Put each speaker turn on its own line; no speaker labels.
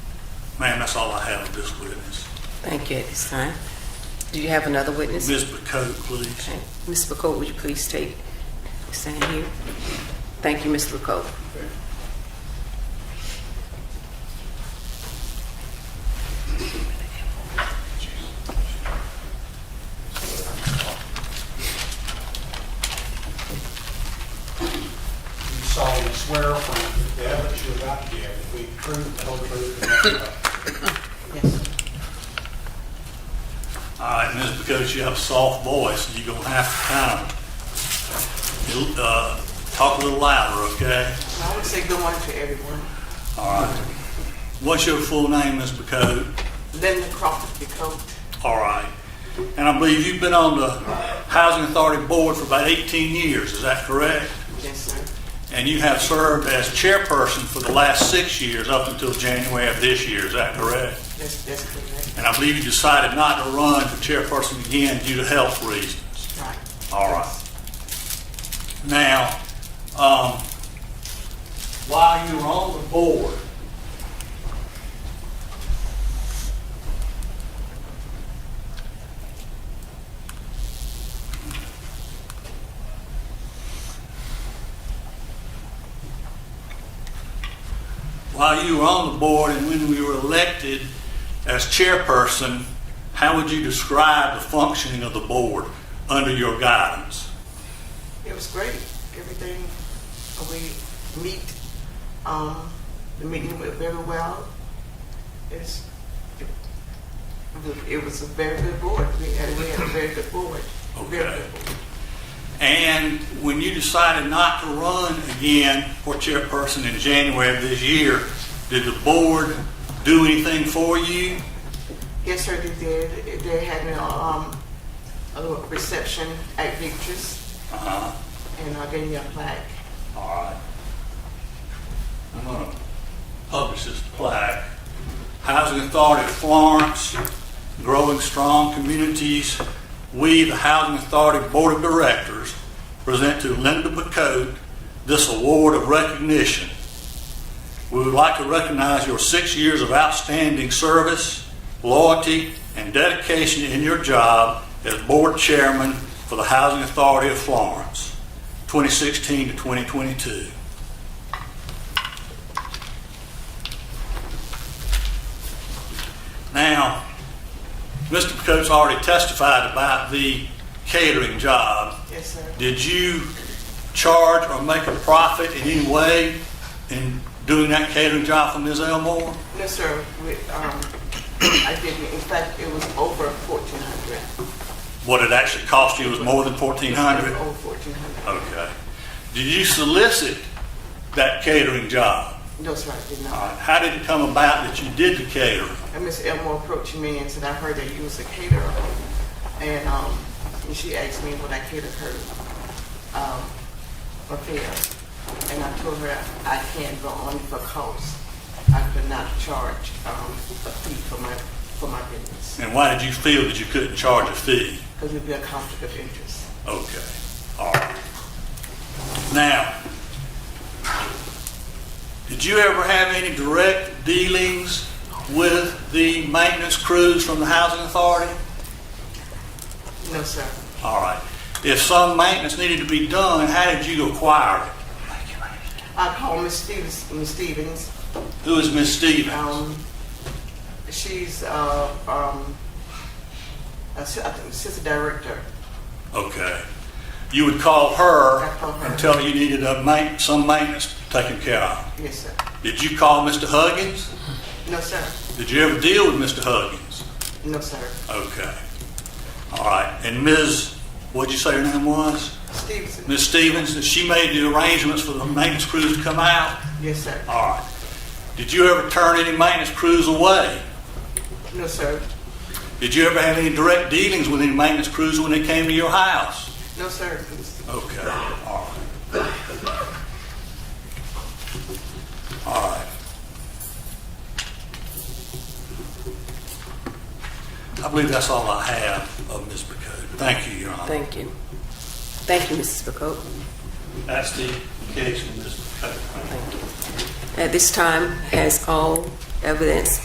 Ma'am, that's all I have of this witness.
Thank you at this time. Do you have another witness?
Ms. McCoke, please.
Okay. Ms. McCoy, would you please take, stand here? Thank you, Ms. McCoy.
You solemnly swear from the evidence you're about to give that we prove the whole truth and nothing but
All right, Ms. McCoke, you have a soft voice, and you're gonna have to kind of, uh, talk a little louder, okay?
I would say good morning to everyone.
All right. What's your full name, Ms. McCoke?
Linda Crawford DeCote.
All right. And I believe you've been on the Housing Authority Board for about 18 years, is that correct?
Yes, sir.
And you have served as chairperson for the last six years up until January of this year, is that correct?
That's, that's correct.
And I believe you decided not to run for chairperson again due to health reasons.
Right.
All right. Now, um, while you were on the board, while you were on the board and when we were elected as chairperson, how would you describe the functioning of the board under your guidance?
It was great. Everything, uh, we meet, um, the meeting went very well. It's, it, it was a very good board. We had, we had a very good board. Very
Okay.
good board.
And when you decided not to run again for chairperson in January of this year, did the board do anything for you?
Yes, sir, they did. They had a, um, a little reception at Victor's
Uh-huh.
and I gave me a plaque.
All right. I'm gonna publish this plaque. Housing Authority of Florence, Growing Strong Communities. We, the Housing Authority Board of Directors, present to Linda Bacote this award of recognition. We would like to recognize your six years of outstanding service, loyalty, and dedication in your job as Board Chairman for the Housing Authority of Florence, 2016 to 2022. Now, Mr. Picote's already testified about the catering job.
Yes, sir.
Did you charge or make a profit in any way in doing that catering job for Ms. Elmore?
No, sir, we, um, I didn't, in fact, it was over fourteen hundred.
What it actually cost you was more than fourteen hundred? Oh.
Over fourteen hundred.
Okay. Did you solicit that catering job?
No, sir, I did
All
not.
right. How did it come about that you did the catering?
And Miss Elmore approached me and said, I heard that you was a caterer. And, um, and she asked me when I catered her, um, affair. And I told her I can't go on for cost. I could not charge, um, a fee for my, for my business,
And why did you feel that you couldn't charge a fee?
because it'd be a conflict of interest.
Okay, all right. Now, did you ever have any direct dealings with the maintenance crews from the housing authority?
No, sir.
All right. If some maintenance needed to be done, how did you acquire it?
I called Miss Stevens, Miss Stevens,
Who is Miss Stevens?
Um, she's uh, um, assistant, assistant director.
Okay. You would call her
I call her.
and tell her you needed a ma, some maintenance taken care of.
Yes, sir.
Did you call Mr. Huggins?
No, sir.
Did you ever deal with Mr. Huggins?
No, sir.
Okay. All right. And Ms., what'd you say her name was?
Stevenson.
Ms. Stevens, that she made the arrangements for the maintenance crews to come out?
Yes, sir.
All right. Did you ever turn any maintenance crews away?
No, sir.
Did you ever have any direct dealings with any maintenance crews when they came to your house?
No, sir.
Okay, all right. All right. I believe that's all I have of Ms. Bacode. Thank you, Your Honor.
Thank you. Thank you, Mrs. McCoy.
That's the case with Ms. Bacode.
At this time, has all evidence